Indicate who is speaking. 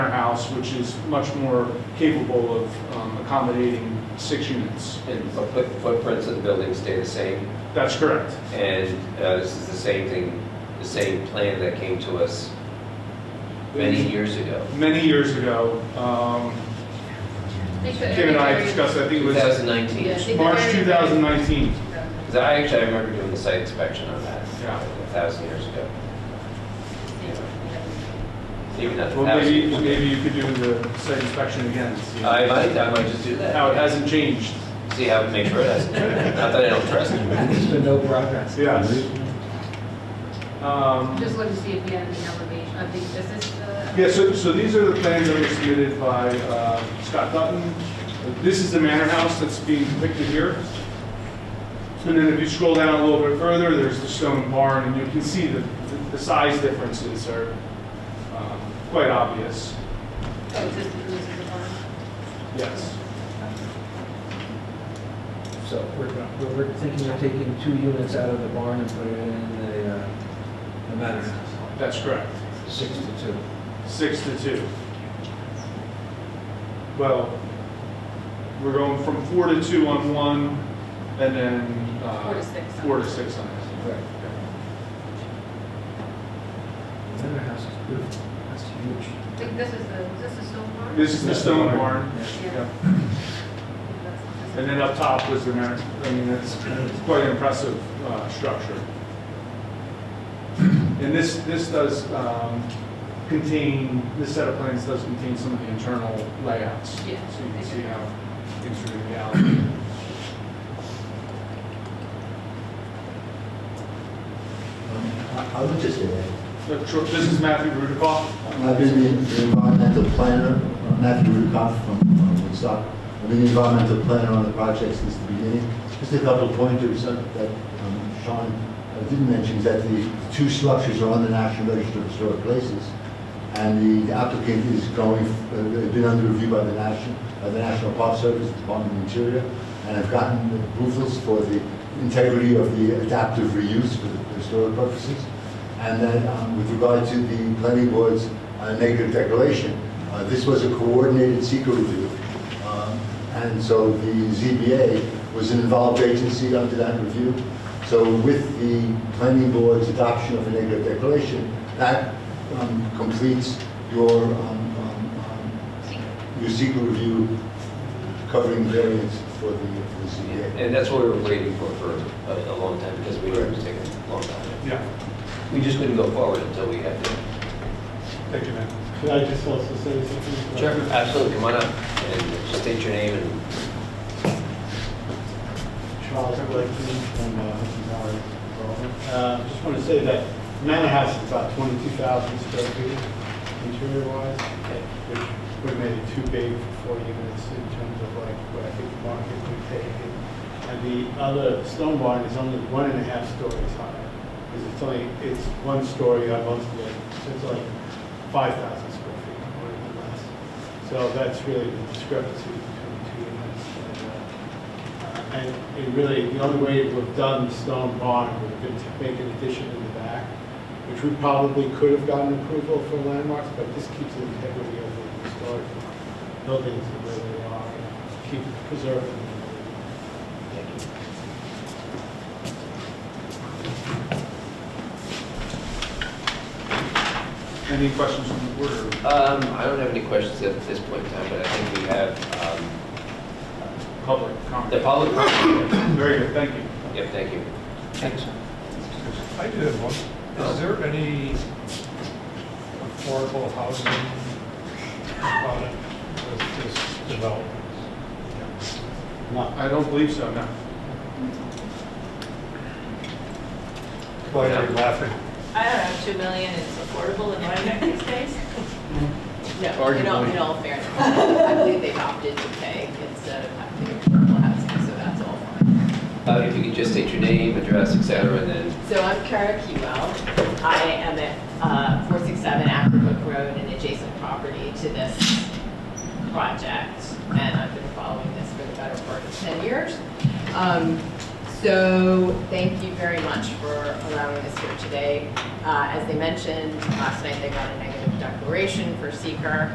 Speaker 1: house, which is much more capable of um, accommodating six units.
Speaker 2: And foot- foot- footprints of the building stay the same,
Speaker 1: That's correct.
Speaker 2: and uh, this is the same thing, the same plan that came to us many years ago.
Speaker 1: Many years ago, um, Kim and I discussed, I think it was
Speaker 2: 2019.
Speaker 3: Yeah.
Speaker 1: March 2019.
Speaker 2: 'Cause I actually, I remember doing the site inspection on that,
Speaker 1: Yeah.
Speaker 2: a thousand years ago. Even not a
Speaker 1: Well,
Speaker 2: thousand
Speaker 1: maybe,
Speaker 2: years ago.
Speaker 1: maybe you could do the site inspection again. and see
Speaker 2: I might, I might just do that.
Speaker 1: How it hasn't changed.
Speaker 2: See how, make sure it hasn't, not that I don't trust it.
Speaker 4: There's been no progress.
Speaker 1: Yes. Um,
Speaker 3: Just look to see if we have any elevation, I think this is the.
Speaker 1: Yeah, so, so these are the plans that were submitted by uh, Scott Dutton. This is the manor house that's being depicted here. And then if you scroll down a little bit further, there's the stone barn, and you can see the, the size differences are um, quite obvious.
Speaker 3: Oh, this is, this is the barn.
Speaker 1: Yes.
Speaker 4: So we're, we're- we're thinking of taking two units out of the barn and putting it in the, uh, the manor house,
Speaker 1: That's correct.
Speaker 4: six to two.
Speaker 1: Six to two. Well, we're going from four to two on one, and then. uh,
Speaker 3: Four to six on
Speaker 1: Four
Speaker 3: the
Speaker 1: to six on this.
Speaker 4: Right. The manor house is beautiful, that's huge.
Speaker 3: I think this is the, is this the stone barn?
Speaker 1: This is the stone barn.
Speaker 4: Yeah.
Speaker 1: Yeah.
Speaker 3: Yeah. That's- this
Speaker 1: And
Speaker 3: is-
Speaker 1: then up top was the, mar- I mean, that's it's quite an impressive uh, structure. And this, this does um, contain, this set of plans does contain some of the internal layouts.
Speaker 3: Yeah.
Speaker 1: So you can see how things are going to be out.
Speaker 5: I'm interested in it.
Speaker 1: Look, sure, This is Matthew Rudikoff.
Speaker 5: I've been the- the environmental planner, Matthew Rukoff from uh, Woodstock. I've been the environmental planner on the project since the beginning. Just a couple of pointers uh, that um, Sean uh, didn't mention, is that the two structures are on the National Register of Historic Places. And the applicant is going, uh, been under review by the National, by the National Park Service, Department of Interior, and have gotten approvals for the integrity of the adaptive reuse for the historic purposes. And then um, with regard to the planning board's uh, negative declaration, uh, this was a coordinated secret review. Um, And so the ZBA was an involved agency under that review. So with the planning board's adoption of a negative declaration, that um, completes your, um, um, um, your secret review covering variance for the for the ZBA.
Speaker 2: And that's what we were waiting for for a, a long time, because we knew it was taking a long time.
Speaker 1: Yeah,
Speaker 2: We just couldn't go forward until we had the.
Speaker 1: thank you, Matt.
Speaker 6: Could I just also say something?
Speaker 2: Absolutely, come on up, and just state your name and
Speaker 6: Charles Blakeney from uh, Hudson Valley Development. Uh, Just want to say that Manor House is about 22,000 square feet interior-wise, which would make it too big for four units in terms of like what I think the market would take. it. And the other stone barn is only one and a half stories high, because it's only, it's one story on multiple, so it's like 5,000 square feet or even less. So that's really the discrepancy between the two units. And, uh, and it really, the only way it would have done the stone barn would have been to make an addition in the back, which we probably could have gotten approval for landmarks, but this keeps the integrity of the historic buildings the way they are, and keep preserving them.
Speaker 1: Any questions from the board? or-
Speaker 2: Um, I don't have any questions at this point in time, but I think we have, um,
Speaker 1: Public comment.
Speaker 2: the public.
Speaker 1: Very good, thank you.
Speaker 2: Yep, thank you. Thanks.
Speaker 7: I do have one. Is there any affordable housing product with this development?
Speaker 6: Not
Speaker 1: I don't believe so, no.
Speaker 7: Why are you laughing?
Speaker 8: I don't know, two million is affordable in Rhinebeck these days? No, in all, in all fairness, I believe they've opted to pay instead of having to affordable housing, so that's all fine.
Speaker 2: Uh, if you could just state your name, address, et cetera, and then,
Speaker 8: So I'm Kara Kewell. I am at uh, four six seven Acrobook Road, an adjacent property to this project, and I've been following this for the better part of ten years. Um, So thank you very much for allowing us here today. Uh, As they mentioned, last night they got a negative declaration for seeker.